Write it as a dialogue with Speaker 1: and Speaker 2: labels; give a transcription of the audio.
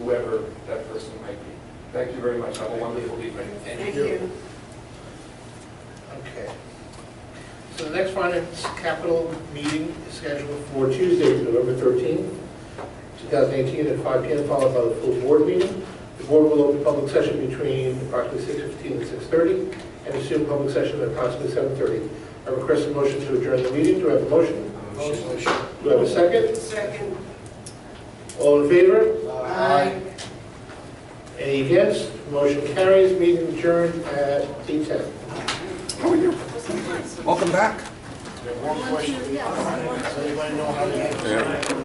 Speaker 1: whoever that person might be. Thank you very much. Have a wonderful evening.
Speaker 2: Thank you.
Speaker 3: Okay. So the next finance capital meeting is scheduled for Tuesday, November 13th, 2018, at 5 p.m., followed by the full board meeting. The board will open public session between approximately 6:15 and 6:30, and assume public session at approximately 7:30. I request a motion to adjourn the meeting. Do I have a motion?
Speaker 2: Motion.
Speaker 3: Do I have a second?
Speaker 2: Second.
Speaker 3: All in favor?
Speaker 2: Aye.
Speaker 3: Any against? Motion carries. Meeting adjourned at 8:10.
Speaker 4: How are you? Welcome back.
Speaker 5: One, two, yes, one, two.
Speaker 4: Yeah.